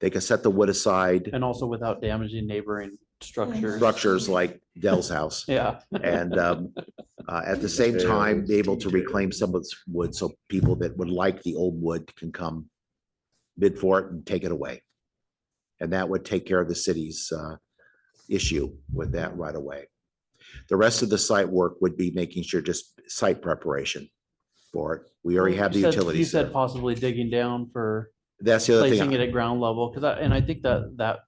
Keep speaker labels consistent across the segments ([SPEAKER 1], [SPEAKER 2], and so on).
[SPEAKER 1] They can set the wood aside,
[SPEAKER 2] And also without damaging neighboring structures.
[SPEAKER 1] structures like Dell's house.
[SPEAKER 2] Yeah.
[SPEAKER 1] And um, uh, at the same time, be able to reclaim some of this wood, so people that would like the old wood can come bid for it and take it away. And that would take care of the city's uh, issue with that right away. The rest of the site work would be making sure just site preparation for it. We already have the
[SPEAKER 2] Oh, You said- You
[SPEAKER 1] utilities.
[SPEAKER 2] said
[SPEAKER 1] there.
[SPEAKER 2] possibly digging down for
[SPEAKER 1] That's the other
[SPEAKER 2] placing it
[SPEAKER 1] thing.
[SPEAKER 2] at ground level, because I, and I think that, that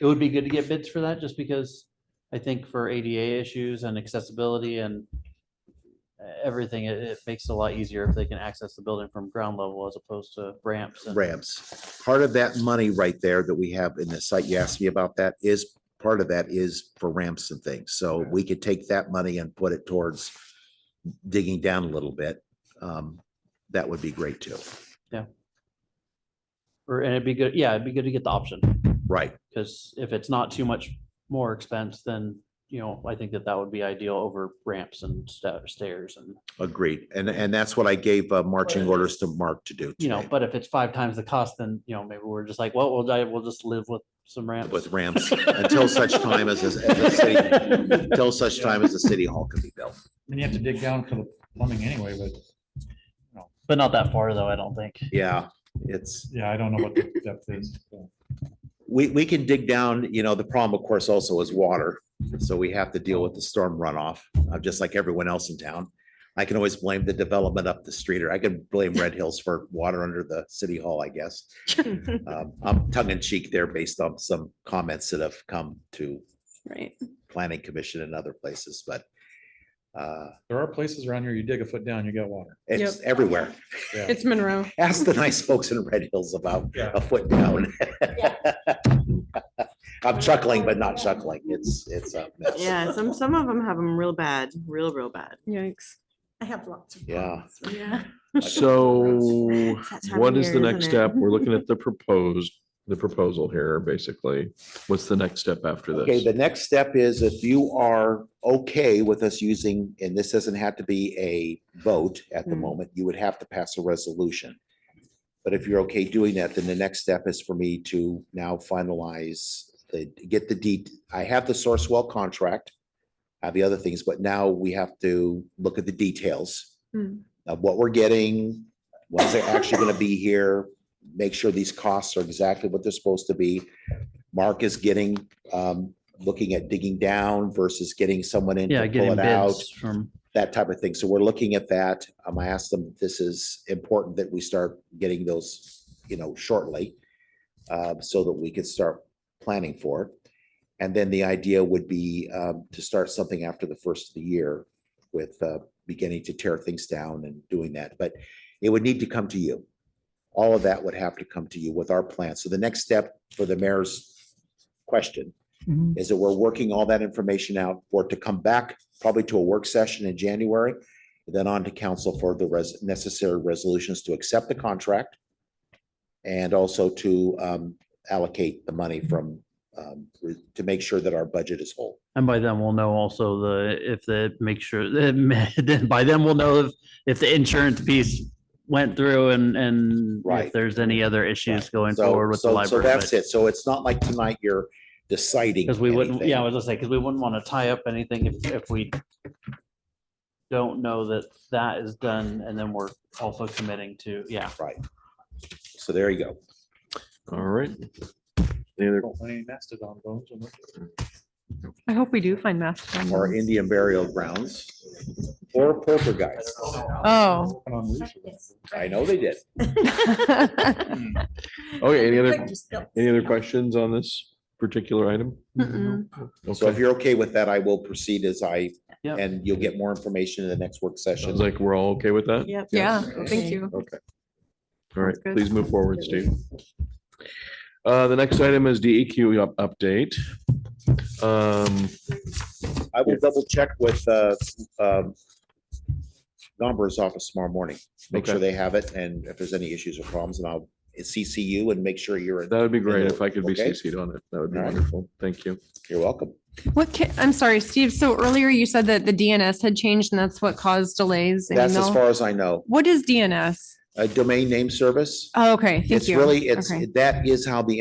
[SPEAKER 2] it would be good to get bids for that, just because I think for ADA issues and accessibility and everything, it, it makes it a lot easier if they can access the building from ground level as opposed to ramps. and-
[SPEAKER 1] ramps. Part of that money right there that we have in the site, you asked me about that, is, part of that is for ramps and things. So we could take that money and put it towards digging down a little bit. Um, That would be great too.
[SPEAKER 2] Or, and it'd be good, yeah, it'd be good to get the option,
[SPEAKER 1] Right,
[SPEAKER 2] because if it's not too much more expense, then, you know, I think that that would be ideal over ramps and sta- stairs and,
[SPEAKER 1] agreed. And, and that's what I gave uh, marching orders to Mark to do
[SPEAKER 2] you know,
[SPEAKER 1] today
[SPEAKER 2] but if it's five times the cost, then, you know, maybe we're just like, well, we'll, di- we'll just live with some ramps.
[SPEAKER 1] with ramps until such time as, as the city, until such time as the city hall can be built.
[SPEAKER 3] And you have to dig down for the plumbing anyway, but
[SPEAKER 2] But not that far though, I don't think.
[SPEAKER 1] Yeah, it's.
[SPEAKER 3] yeah, I don't know what the depth is. so.
[SPEAKER 1] We, we can dig down, you know, the problem of course also is water. So we have to deal with the storm runoff, uh, just like everyone else in town. I can always blame the development up the street or I could blame Red Hills for water under the city hall, I guess. Um, I'm tongue in cheek there based on some comments that have come to
[SPEAKER 4] Right.
[SPEAKER 1] planning commission and other places, but uh,
[SPEAKER 3] There are places around here, you dig a foot down, you got water.
[SPEAKER 1] it's everywhere.
[SPEAKER 3] Yeah.
[SPEAKER 4] It's Monroe.
[SPEAKER 1] Ask the nice folks in Red Hills about
[SPEAKER 3] Yeah.
[SPEAKER 1] a foot down. I'm chuckling, but not chuckling. It's, it's a mess.
[SPEAKER 5] Yeah, some, some of them have them real bad, real, real bad.
[SPEAKER 4] Yikes.
[SPEAKER 5] I have lots of.
[SPEAKER 1] Yeah.
[SPEAKER 4] Yeah.
[SPEAKER 6] So
[SPEAKER 5] It's that time
[SPEAKER 6] what
[SPEAKER 5] of
[SPEAKER 6] is the
[SPEAKER 5] year,
[SPEAKER 6] next
[SPEAKER 5] isn't it?
[SPEAKER 6] step? We're looking at the proposed, the proposal here, basically. What's the next step after
[SPEAKER 1] Okay,
[SPEAKER 6] this?
[SPEAKER 1] the next step is if you are okay with us using, and this doesn't have to be a vote at the
[SPEAKER 5] Hmm.
[SPEAKER 1] moment, you would have to pass a resolution. But if you're okay doing that, then the next step is for me to now finalize the, get the deed. I have the Sourcewell contract. I have the other things, but now we have to look at the details
[SPEAKER 4] Hmm.
[SPEAKER 1] of what we're getting, when's they're actually gonna be here, make sure these costs are exactly what they're supposed to be. Mark is getting, um, looking at digging down versus getting someone in
[SPEAKER 2] Yeah,
[SPEAKER 1] to pull
[SPEAKER 2] getting
[SPEAKER 1] it out
[SPEAKER 2] bids from,
[SPEAKER 1] that type of thing. So we're looking at that. Um, I asked them, this is important that we start getting those, you know, shortly. Uh, so that we could start planning for it. And then the idea would be, um, to start something after the first of the year with, uh, beginning to tear things down and doing that, but it would need to come to you. All of that would have to come to you with our plan. So the next step for the mayor's question is that we're working all that information out for it to come back probably to a work session in January. Then on to council for the res- necessary resolutions to accept the contract. And also to um allocate the money from um re- to make sure that our budget is whole.
[SPEAKER 2] and by then we'll know also the, if the, make sure, then by then we'll know if, if the insurance piece went through and, and if
[SPEAKER 1] Right.
[SPEAKER 2] there's any other issues going
[SPEAKER 1] So-
[SPEAKER 2] forward with the
[SPEAKER 1] so-
[SPEAKER 2] library.
[SPEAKER 1] So that's it. So it's not like tonight you're deciding.
[SPEAKER 2] Because we wouldn't,
[SPEAKER 1] anything.
[SPEAKER 2] yeah, I was gonna say, because we wouldn't want to tie up anything if, if we don't know that that is done and then we're also committing to, yeah.
[SPEAKER 1] So there you go.
[SPEAKER 6] All right. Any other
[SPEAKER 3] Don't find any mastodon bones. in there.
[SPEAKER 4] I hope we do find mastodon.
[SPEAKER 1] Or
[SPEAKER 4] bones.
[SPEAKER 1] Indian burial grounds or poker guys.
[SPEAKER 4] Oh.
[SPEAKER 3] Put on leash around it.
[SPEAKER 1] I know they did.
[SPEAKER 6] Okay, any other, any
[SPEAKER 5] other?
[SPEAKER 6] other questions on this particular item?
[SPEAKER 4] Mm-mm.
[SPEAKER 1] So if
[SPEAKER 6] Okay,
[SPEAKER 1] you're okay with that, I will proceed as I,
[SPEAKER 2] Yep.
[SPEAKER 1] and you'll get more information in the next work session.
[SPEAKER 6] sounds like we're all okay with that?
[SPEAKER 5] Yep.
[SPEAKER 4] Yeah, thank you.
[SPEAKER 6] Okay. All right,
[SPEAKER 4] Sounds good.
[SPEAKER 6] please move forward, Steve. Uh, the next item is DEQ up- update. Um,
[SPEAKER 1] I will double check with, uh, um, Gomber's office tomorrow morning, make sure
[SPEAKER 6] Okay.
[SPEAKER 1] they have it, and if there's any issues or problems, and I'll CC you and make sure you're,
[SPEAKER 6] that would be great if I could be
[SPEAKER 1] Okay.
[SPEAKER 6] CC'd on it. That would be
[SPEAKER 1] All right.
[SPEAKER 6] wonderful. Thank you.
[SPEAKER 1] you're welcome.
[SPEAKER 4] What, ca- I'm sorry, Steve. So earlier you said that the DNS had changed and that's what caused delays. in
[SPEAKER 1] That's as
[SPEAKER 4] email.
[SPEAKER 1] far as I know.
[SPEAKER 4] What is DNS?
[SPEAKER 1] A domain name service,
[SPEAKER 4] Oh, okay, thank you.
[SPEAKER 1] it's really, it's,
[SPEAKER 4] Okay.
[SPEAKER 1] that is how the